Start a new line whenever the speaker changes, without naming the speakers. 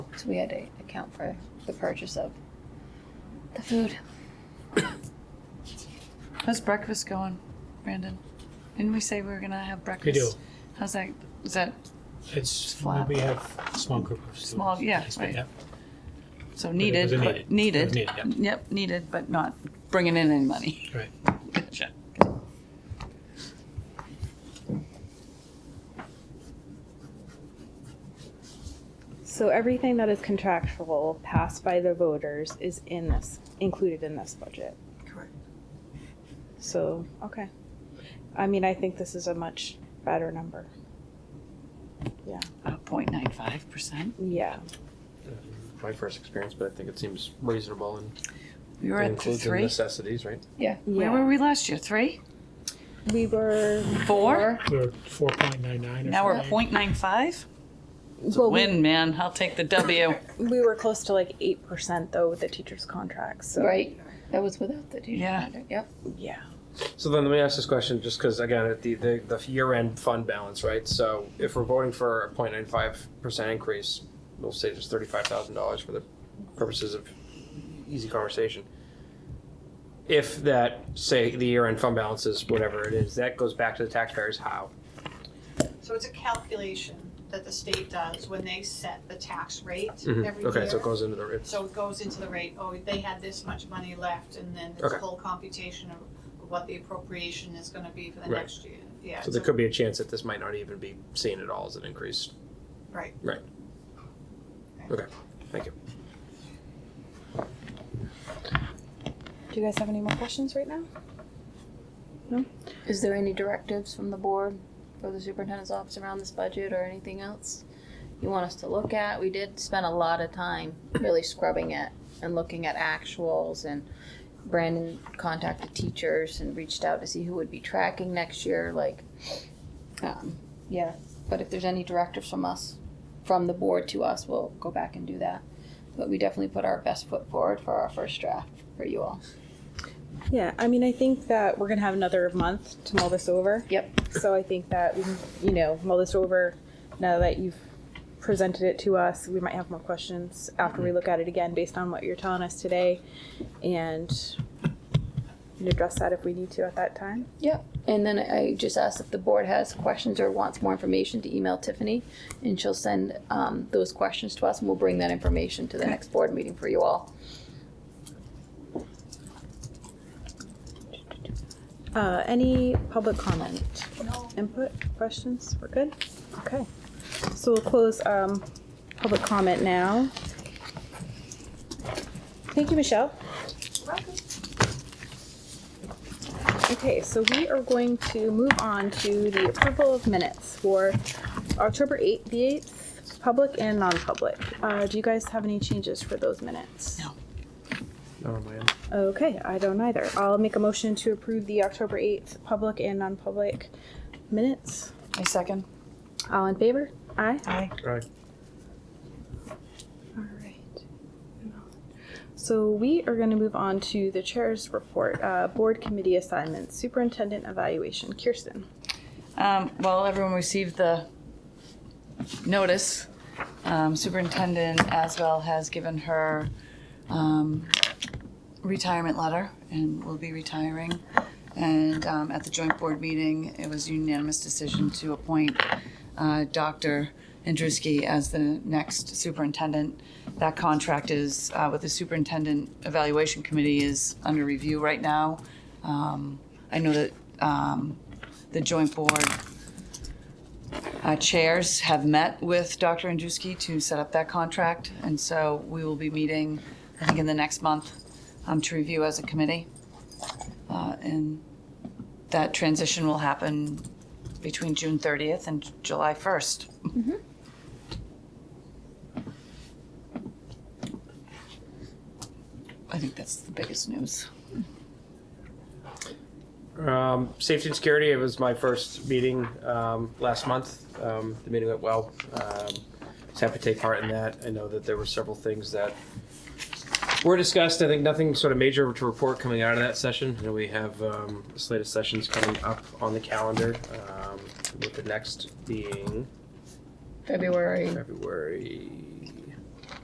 So we had to account for the purchase of the food.
How's breakfast going, Brandon? Didn't we say we were gonna have breakfast?
do.
How's that? Is that
It's
flat.
we have a small group of students.
Small, yeah,
Yes,
right.
yep.
so
it
needed?
was a
but-
needed. It
Needed.
was needed,
Yep, needed, but not bringing in any money.
Right.
Gotcha.
So everything that is contractual passed by the voters is in this, included in this budget.
Correct.
So, okay. I mean, I think this is a much better number.
Uh, 0.95%.
Yeah.
My first experience, but I think it seems reasonable and
We were at
includes the
three.
necessities, right?
Where
yeah.
were we last year? Three?
We were,
Four?
We were four point nine nine.
Now we're 0.95? It's a
well, we,
win, man. I'll take the W.
we were close to like 8% though with the teacher's contracts. So,
Right. That was without the teacher
Yeah.
contract. Yep.
yeah.
So then let me ask this question, just because again, at the, the, the year-end fund balance, right? So if we're voting for a 0.95% increase, we'll say just $35,000 for the purposes of easy conversation. If that, say, the year-end fund balance is whatever it is, that goes back to the taxpayers how?
So it's a calculation that the state does when they set the tax rate every year.
Mhm. Okay, so it goes into the, it's,
So it goes into the rate, oh, they had this much money left, and then there's a
Okay.
whole computation of what the appropriation is gonna be for the
Right.
next year. Yeah,
so there could be a chance that this might not even be seen at all as an increase.
right.
Do you guys have any more questions right now?
Is there any directives from the board or the superintendent's office around this budget or anything else you want us to look at? We did spend a lot of time really scrubbing it and looking at actuals and Brandon contacted teachers and reached out to see who would be tracking next year, like, um, yeah. But if there's any directives from us, from the board to us, we'll go back and do that. But we definitely put our best foot forward for our first draft for you all.
Yeah, I mean, I think that we're gonna have another month to mull this over.
Yep.
So I think that we, can, you know, mull this over now that you've presented it to us. We might have more questions after we look at it again, based on what you're telling us today, and we can address that if we need to at that time.
And then I just asked if the board has questions or wants more information to email Tiffany, and she'll send um, those questions to us, and we'll bring that information to the next board meeting for you all.
Uh, any public comment,
No.
input, questions? We're good. Okay, so we'll close um, public comment now. Thank you, Michelle. Okay, so we are going to move on to the approval of minutes for October 8th, the 8th, public and non-public. Uh, do you guys have any changes for those minutes?
No.
Oh, man.
Okay, I don't either. I'll make a motion to approve the October 8th public and non-public minutes.
A second.
All in favor? Aye.
Aye.
Aye.
All right. So we are going to move on to the chair's report, uh, board committee assignments, superintendent evaluation. Kirsten.
Um, well, everyone received the notice. Um, Superintendent Aswell has given her um, retirement letter and will be retiring. And um, at the joint board meeting, it was unanimous decision to appoint uh, Dr. Andruski as the next superintendent. That contract is uh, with the superintendent evaluation committee is under review right now. Um, I know that um, the joint board uh, chairs have met with Dr. Andruski to set up that contract, and so we will be meeting, I think, in the next month um, to review as a committee. Uh, And that transition will happen between June 30th and July 1st. I think that's the biggest news.
Um, safety and security. It was my first meeting um, last month. Um, the meeting went well. Um, was happy to take part in that. I know that there were several things that were discussed. I think nothing sort of major to report coming out of that session. You know, we have um, a slate of sessions coming up on the calendar. Um, with the next being
February
February